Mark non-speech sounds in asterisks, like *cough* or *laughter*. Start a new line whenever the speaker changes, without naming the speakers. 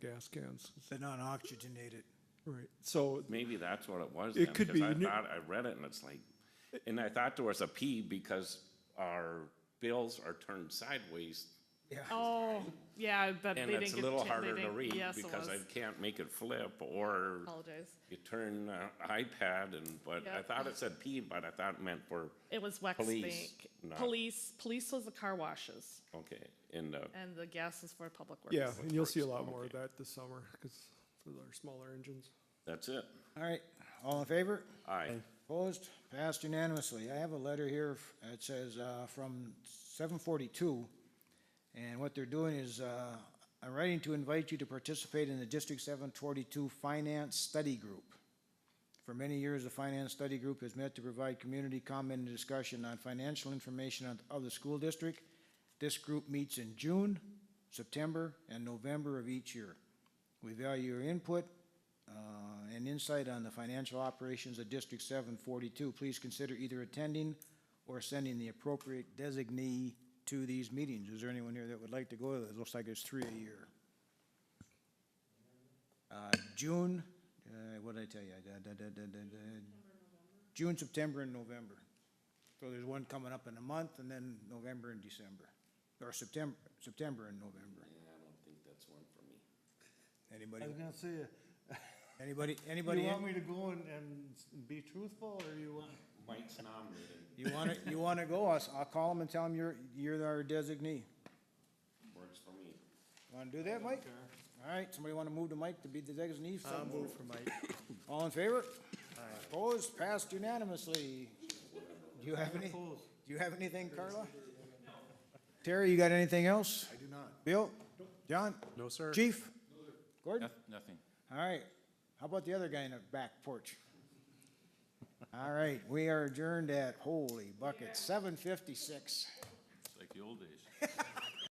gas cans,
They're not oxygenated.
right? So,
Maybe that's what it was
It
then,
could
because
be.
I
You knew-
thought, I read it and it's like, and I thought there was a P because our bills are turned sideways.
Oh, yeah, but they
And
didn't get.
it's a little
cha- they
harder to
didn't-
read
yes, it
because I
was.
can't make it flip or
Apologize.
you turn uh, iPad and, but I
Yep.
thought it said P, but I thought it meant for,
It was
Police,
Wexbank.
not-
Police, police was the car washes
okay, and, uh,
and the gas is for public works.
yeah, and you'll see a lot more of
Okay.
that this summer, because for our smaller engines.
that's it.
All right, all in favor?
Aye.
Opposed? Passed unanimously. I have a letter here that says, uh, from seven forty-two. And what they're doing is, uh, I'm writing to invite you to participate in the District seven forty-two Finance Study Group. For many years, the Finance Study Group has met to provide community comment and discussion on financial information of, of the school district. This group meets in June, September, and November of each year. We value your input, uh, and insight on the financial operations of District seven forty-two, please consider either attending or sending the appropriate designee to these meetings. Is there anyone here that would like to go to this? Looks like it's three a year. Uh, June, uh, what did I tell you? Da, da, da, da, da, da. June, September, and November. So there's one coming up in a month, and then November and December, or September, September and November. Anybody,
I was gonna say, *laughs*
anybody, anybody?
you
in?
want me to go and, and s- be truthful, or you want?
Mike's nominated.
You wanna, you wanna go, I'll, s- I'll call them and tell them you're, you're our designee.
Works for me.
Wanna do that, Mike? All right, somebody wanna move to Mike to be the designee? Some-
for Mike.
*coughs* All in favor? Opposed, passed unanimously. Do you have any, do
Opposed.
you have anything, Carla? Terry, you got anything else? I do not. Bill? John?
No, sir.
Chief? Gordon?
Nothing.
All right, how about the other guy in the back porch? *laughs* All right, we are adjourned at, holy bucket, seven fifty-six.
It's like the old days.